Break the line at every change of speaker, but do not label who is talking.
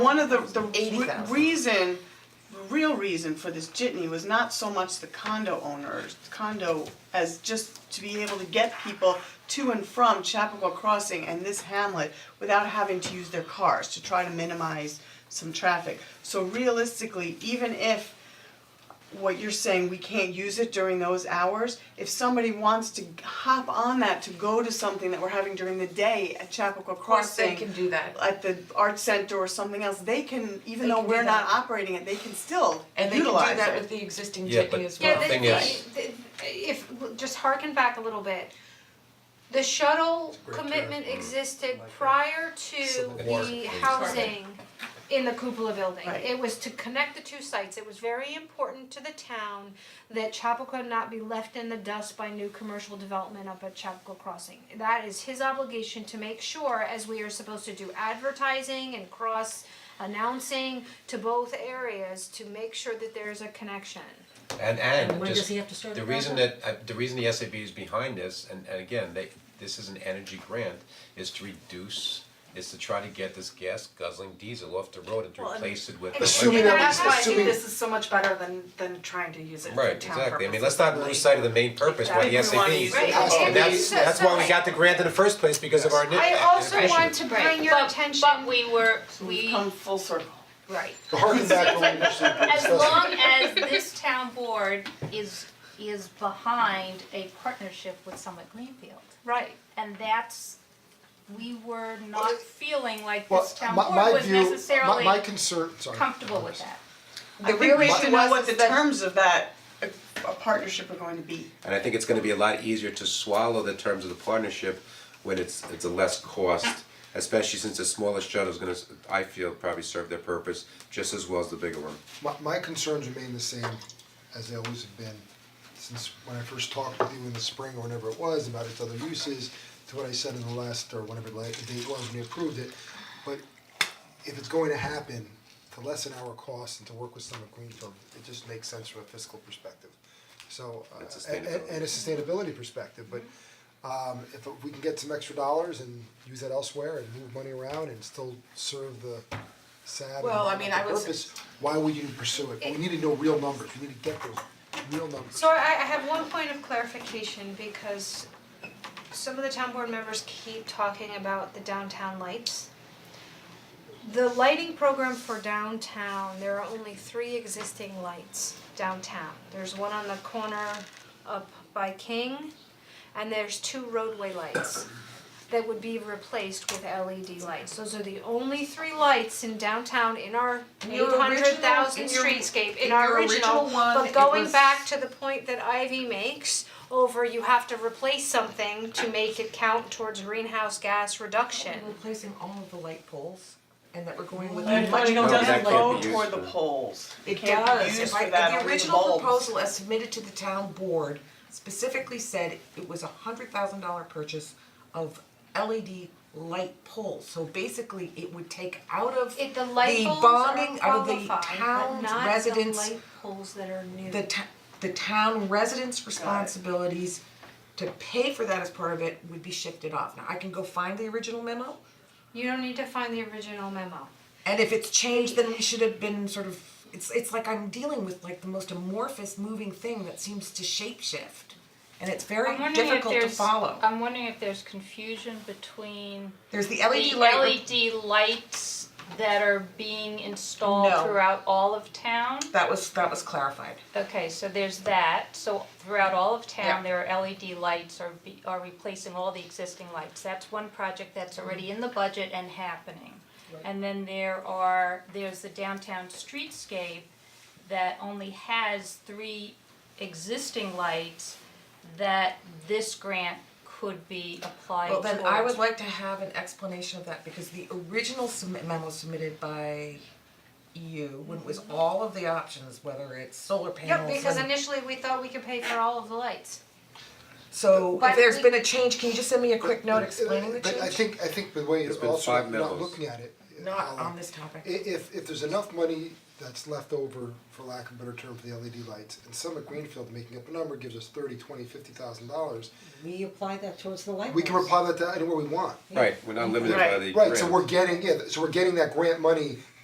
One of the the re-
80,000.
reason, the real reason for this jitney was not so much the condo owners, condo as just to be able to get people to and from Chapua Crossing and this hamlet without having to use their cars to try to minimize some traffic. So realistically, even if what you're saying, we can't use it during those hours, if somebody wants to hop on that to go to something that we're having during the day at Chapua Crossing
course they can do that.
at the art center or something else, they can, even
They
though
can do
we're not
that.
operating it, they can still
And they can do
utilize it.
that with the existing
Yeah,
jitney
but-
as
Yeah,
well.
Yeah, the,
thing is-
the- the- if, just harken back a little bit. The shuttle
great
commitment
term.
existed prior to
Civil War.
the housing in the cupola building.
Right.
It was to connect the two sites, it was very important to the town that Chapacua not be left in the dust by new commercial development up at Chapacua Crossing. That is his obligation to make sure, as we are supposed to do advertising and cross announcing to both areas, to make sure that there's a connection.
And and
when
just,
does he have to start
the
the
reason that,
project?
uh, the reason the SAB is behind this, and and again, they, this is an energy grant, is to reduce, is to try to get this gas guzzling diesel off the road and to
Well, and-
replace it with.
Assuming
that
that
we-
that's why I
assuming-
think this is so much better than than trying to use it for town
Right,
purposes.
exactly, I mean, let's not lose sight of the main purpose, why the
Exactly.
SAB,
We wanna
use it. Right,
and that's,
so-
that's why we
so-
got the grant in the first place, because of our ni-
I also
inefficiency.
want to bring your
But-
attention.
But we were,
We've
we,
come full circle.
right,
To harken back to what you said, we
as
discussed.
long as this town board is, is behind a partnership with Summit Greenfield.
Right.
And that's, we were not feeling like
Well,
this town
my- my
board was
view- my- My
necessarily
concern, sorry.
comfortable with that.
I think we should know what the
is that-
terms of that, uh, uh, partnership are going to be.
And I think it's gonna be a lot easier to swallow the terms of the partnership when it's it's a less cost, especially since the smallest shuttle is gonna, s- I feel, probably serve their purpose just as well as the bigger one.
My, my concerns remain the same as they always have been, since when I first talked with you in the spring or whenever it was about its other uses, to what I said in the last, or whenever the la- the date was when we approved it, but if it's going to happen, to lessen our costs and to work with Summit Greenfield, it just makes sense from a fiscal perspective. So, uh,
And
and, and- and a sustainability perspective, but um, if we can get some extra dollars and use that elsewhere and move money around and still serve the sad
Well, I
and
mean, I would s-
purpose, why would you pursue it? We need to know real numbers, we need to get those real numbers.
So I, I have one point of clarification because some of the town board members keep talking about the downtown lights. The lighting program for downtown, there are only three existing lights downtown. There's one on the corner up by King, and there's two roadway lights that would be replaced with LED lights. Those are the only three lights in downtown in our eight
Your
hundred thousand
original- in your-
streetscape,
in
in our
your
original,
original one,
but
it
going
was-
back to the point that Ivy makes over you have to replace something to make it count towards greenhouse gas reduction.
We're replacing all of the light poles and that we're going with.
But
much
it
No, that
doesn't
can't
go
be used
toward
for-
the poles.
It
can't be
does,
used
If
for
I-
that
the
only
original
bulbs.
proposal as submitted to the town board specifically said it was a hundred thousand dollar purchase of LED light poles. So basically, it would take out of
It, the light
the
bulbs
bonding
are
out of the
qualified, but
town's
not
residents
the light poles that are new.
the to- the town residents' responsibilities to pay for that as part of it would be shifted off. Now, I can go find the original memo,
you don't need to find the original memo.
and if it's changed, then we should have been sort of, it's it's like I'm dealing with like the most amorphous moving thing that seems to shapeshift. And it's very
I'm wondering if
difficult to
there's,
follow.
I'm wondering if there's confusion between
There's the
the
LED
E
light,
LED lights that are being installed
No.
throughout all of town.
that was, that was clarified.
Okay, so there's that, so throughout all of
Yeah.
town, there are LED lights are be, are replacing all the existing lights, that's one project that's already in the budget and happening. And then there are, there's the downtown streetscape that only has three existing lights that this grant could be applied
Well,
towards.
then I would like to have an explanation of that, because the original submit memo submitted by you, when it was
Mm-hmm.
all of the options, whether it's solar
Yep,
panels
because
and-
initially we thought we could pay for all of the lights.
So
But
if there's
we-
been a change, can you just send me a quick note explaining the
But I
change?
think, um, I think the way
There's
it's
been
also
five
not
memos.
looking at it.
Not
Alan,
on this
i-
topic.
if if there's enough money that's left over, for lack of a better term, for the LED lights, and Summit Greenfield making up a number gives us thirty, twenty, fifty thousand dollars,
We apply that towards the light
we can reply that to anywhere we want.
Right, we're not limited by the
Right, so
grant.
we're getting, yeah, so we're getting that grant money